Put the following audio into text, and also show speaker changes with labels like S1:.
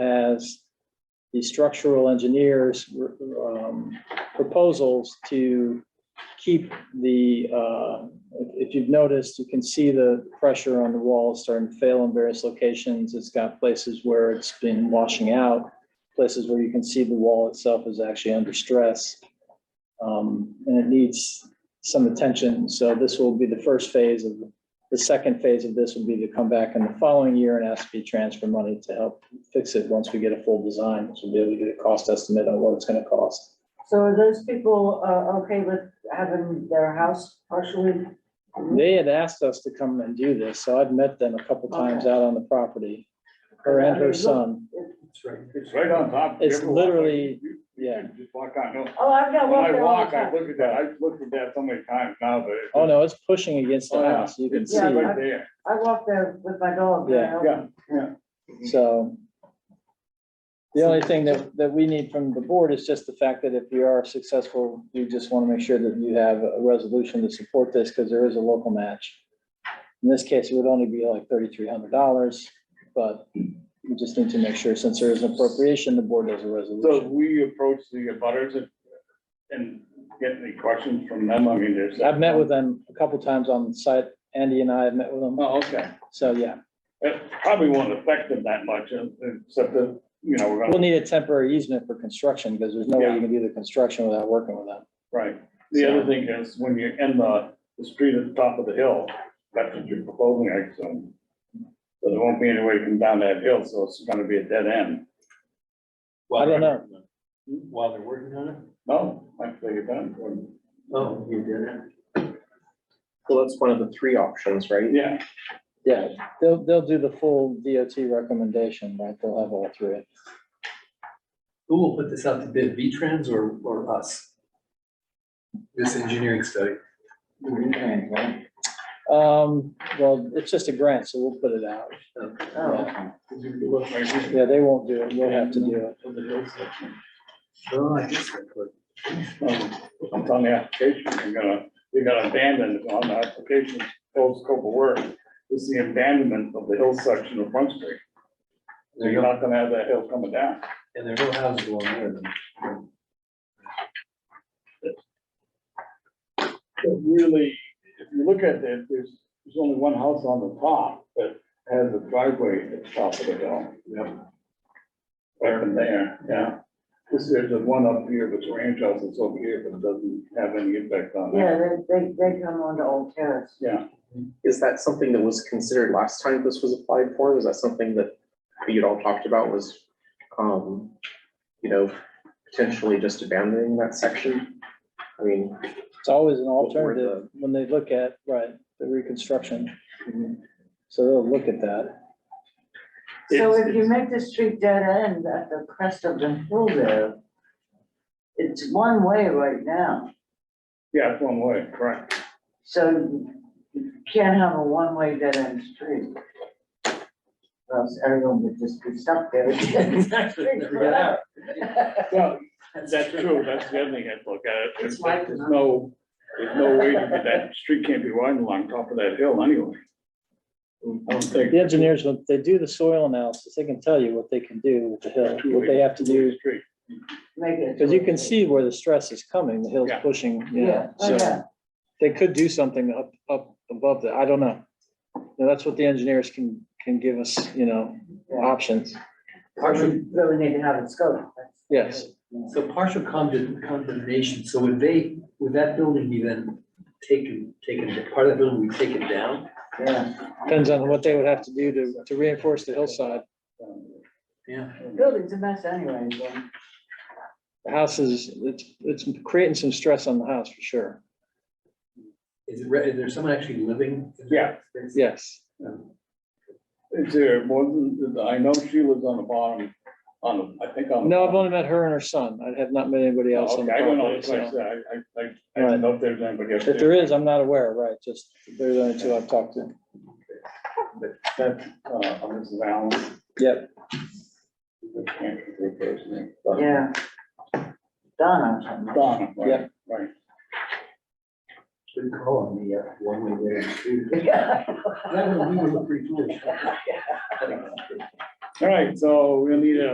S1: as the structural engineer's um, proposals to keep the, uh, if if you've noticed, you can see the pressure on the walls starting to fail in various locations. It's got places where it's been washing out, places where you can see the wall itself is actually under stress. Um, And it needs some attention. So this will be the first phase of, the second phase of this would be to come back in the following year and ask for transfer money to help fix it once we get a full design. So we'll be able to get a cost estimate on what it's going to cost.
S2: So are those people, uh, okay with having their house partially?
S3: Mm-hmm.
S1: They had asked us to come and do this, so I've met them a couple times out on the property, her and her son.
S3: It's right, it's right on top.
S1: It's
S3: River Walk.
S1: literally-
S3: You- you
S1: yeah.
S3: can Just walk on, no.
S2: Oh, I've got
S3: When
S2: one
S3: I
S2: there all the
S3: walk, I
S2: time.
S3: look at that, I've looked at that so many times now, but. it's-
S1: Oh, no, it's pushing against the
S3: Oh, yeah.
S1: house, you can
S3: It's
S1: see.
S2: Yeah,
S3: Right there,
S2: I walk there with my dog. you
S1: Yeah.
S2: know.
S3: yeah, yeah.
S1: So the only thing that, that we need from the board is just the fact that if you are successful, you just want to make sure that you have a resolution to support this because there is a local match. In this case, it would only be like thirty-three hundred dollars, but we just need to make sure since there is an appropriation, the board does a
S3: So
S1: resolution.
S3: we approach the butters and, and get any questions from them, I mean, there's.
S1: I've met with them a couple times on site. Andy and I have met with them.
S3: Oh, okay.
S1: So, yeah,
S3: It probably won't affect them that much, uh, except that, you know, we're
S1: we'll
S3: gonna,
S1: need a temporary easement for construction because there's no way you can do the construction without working with them.
S3: right. The other thing is, when you end the, the street at the top of the hill, that's what you're proposing, I assume. So there won't be any way to come down that hill, so it's gonna be a dead end.
S1: I don't know.
S4: While they're working on it?
S3: No, actually, it doesn't.
S4: Oh, you did it.
S5: Well, that's one of the three options, right?
S3: Yeah,
S1: Yeah, they'll, they'll do the full DOT recommendation, right? They'll have all three.
S4: Who will put this out to bid, V-Trans or, or us? This engineering study.
S1: Um, well, it's just a grant, so we'll put it out.
S2: Oh,
S1: Yeah, they won't do it. We'll have to do it.
S4: Oh, I guess. I could.
S3: Um, It's on the application, you're gonna, you're gonna abandon it on the application, full scope of work, is the abandonment of the hill section of Front Street. So you're not gonna have that hill coming down.
S4: And there are no houses along there then.
S3: But really, if you look at that, there's, there's only one house on the top that has a driveway at the top of the hill. Yeah. Right in there, yeah. This, there's the one up here, but the ranch house is over here, but it doesn't have any impact on
S2: Yeah,
S3: that.
S2: they, they, they come onto Old Terrace.
S3: Yeah.
S5: Is that something that was considered last time this was applied for? Was that something that you'd all talked about was, um, you know, potentially just abandoning that section? I mean,
S1: It's always an alternative when they look at, right, the reconstruction. So they'll look at that.
S2: So
S3: It's-
S2: if you make the street dead end at the crest of the hill there, it's one way right now,
S3: Yeah, it's one way, correct.
S2: so you can't have a one-way dead end street. Or else everyone would just be stuck there.
S3: Well, that's true, that's the other thing I look at. it.
S2: It's like-
S3: There's no, there's no way to get that street can't be widened along top of that hill anyway. I don't think.
S1: The engineers, when they do the soil analysis, they can tell you what they can do with the hill, what they have to do.
S3: Street.
S2: Make it-
S1: Because you can see where the stress is coming, the hill's
S3: Yeah.
S1: pushing, you
S2: Yeah,
S1: know,
S2: oh,
S1: so.
S2: yeah.
S1: They could do something up, up above that. I don't know. Now, That's what the engineers can, can give us, you know,
S2: Yeah.
S1: options.
S2: We really need to have it scoped. that's-
S1: Yes.
S4: So partial condemn- condemnation, so would they, would that building be then taken, taken, part of the building would be taken down?
S2: Yeah,
S1: Depends on what they would have to do to, to reinforce the hillside.
S4: Yeah.
S2: The building's a mess anyway, so.
S1: The house is, it's, it's creating some stress on the house for sure.
S4: Is it, re- is there someone actually living? in that
S3: Yeah.
S4: space?
S1: Yes.
S3: Is there more than, I know she lives on the bottom, on, the I think on. the
S1: No, I've
S3: bottom.
S1: only met her and her son. I have not met anybody else on the
S3: Okay, I don't know,
S1: property.
S3: that's why I
S1: so.
S3: said, I, I, I I don't know if there's anybody up
S1: If
S3: there.
S1: there is, I'm not aware, right? Just, they're the only two I've talked to.
S3: That's, uh, Mrs. Allen.
S1: Yep.
S3: I can't remember her first name, but-
S2: Yeah. Donna. or something.
S3: Donna, right,
S1: Yeah.
S3: right.
S4: Good call on the, uh, one way there. too.
S2: Yeah.
S4: That would, we would look pretty foolish.
S3: All right, so we'll need a